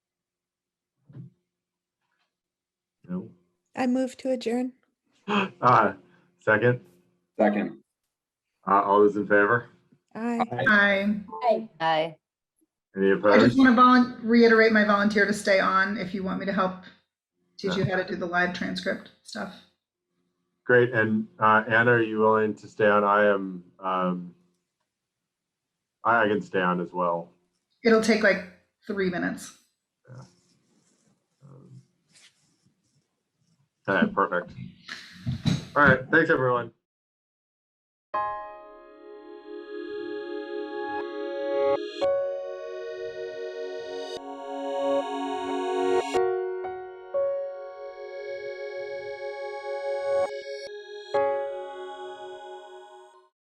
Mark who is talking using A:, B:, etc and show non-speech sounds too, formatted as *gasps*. A: No.
B: I move to
A: *gasps*
B: adjourn.
A: Uh, second,
C: Second.
A: uh, all those in favor?
B: Aye.
D: Hi.
E: Aye.
A: Any
D: I just
A: opposed?
D: want to volun, reiterate my volunteer to stay on if you want me to help teach you how to do the live transcript stuff.
A: Great. And, uh, Anna, are you willing to stay on? I am, um, I I can stay on as well.
D: It'll take like three minutes.
A: Um, *laughs* All right, perfect. All right, thanks, everyone.